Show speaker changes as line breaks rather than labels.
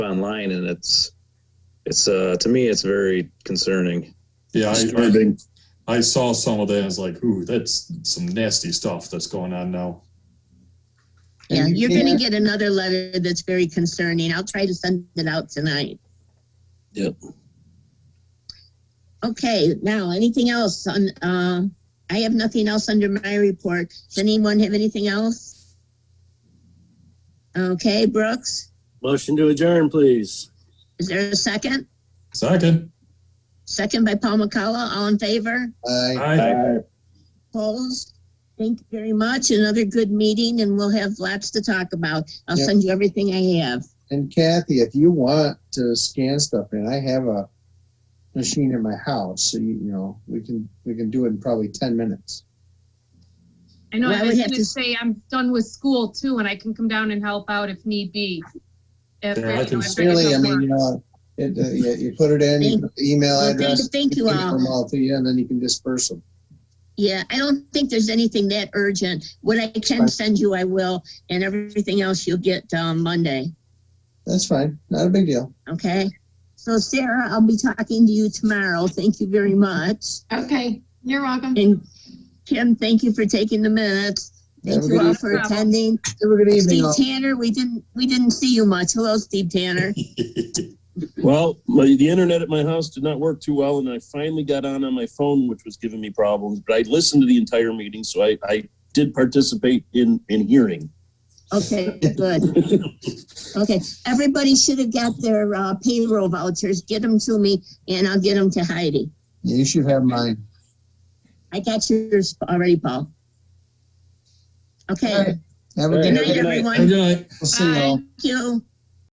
online and it's it's uh to me it's very concerning
Yeah, I,
disturbing.
I saw some of that. and I was like, ooh, that's some nasty stuff that's going on now.
Yeah,
And you
you're gonna
can't-
get another letter that's very concerning. I'll try to send it out tonight.
Yep.
Okay, now, anything else on, uh, I have nothing else under my report. Does anyone have anything else? Okay, Brooks,
Motion to adjourn, please.
is there a second?
Second.
Second by Paul McCullough, all in favor?
Aye.
Aye.
Opposed? Thank you very much. Another good meeting and we'll have lots to talk about. I'll
Yep.
send you everything I have.
And Kathy, if you want to scan stuff, and I have a machine in my house, so you, you know, we can, we can do it in probably ten minutes.
I know,
Well, I
I
would
was
have
gonna
to-
say, I'm done with school too, and I can come down and help out if need be. If,
Yeah, I
you know,
can
if it
Really, I
doesn't
mean, you
work.
know, it, uh, you, you put it in, you put the email
Well, thank-
address.
thank you
we can
all.
get them all to you, and then you can disperse them.
Yeah, I don't think there's anything that urgent. What I can
Right.
send you, I will, and everything else you'll get um, Monday.
That's fine, not a big deal.
Okay. So Sarah, I'll be talking to you tomorrow. Thank you very much.
uh,
Okay, you're welcome.
And Kim, thank you for taking the minutes. Thank
Have a
you
good
all
eve-
for
No problem.
attending.
have a good evening.
Steve
all.
Tanner, we didn't we didn't see you much. Hello, Steve Tanner.
Well, my, the internet at my house did not work too well, and I finally got on on my phone, which was giving me problems. But I listened to the entire meeting, so I, I did participate in in hearing.
Okay, good. Okay, everybody should have got their uh, payroll vouchers. Get them to me, and I'll get them to Heidi.
You should have mine.
I got yours already, Paul. Okay.
Have a
All
good
right.
Good
Good night.
night,
night.
everyone.
Good night.
We'll see you all.
Bye.
Thank you.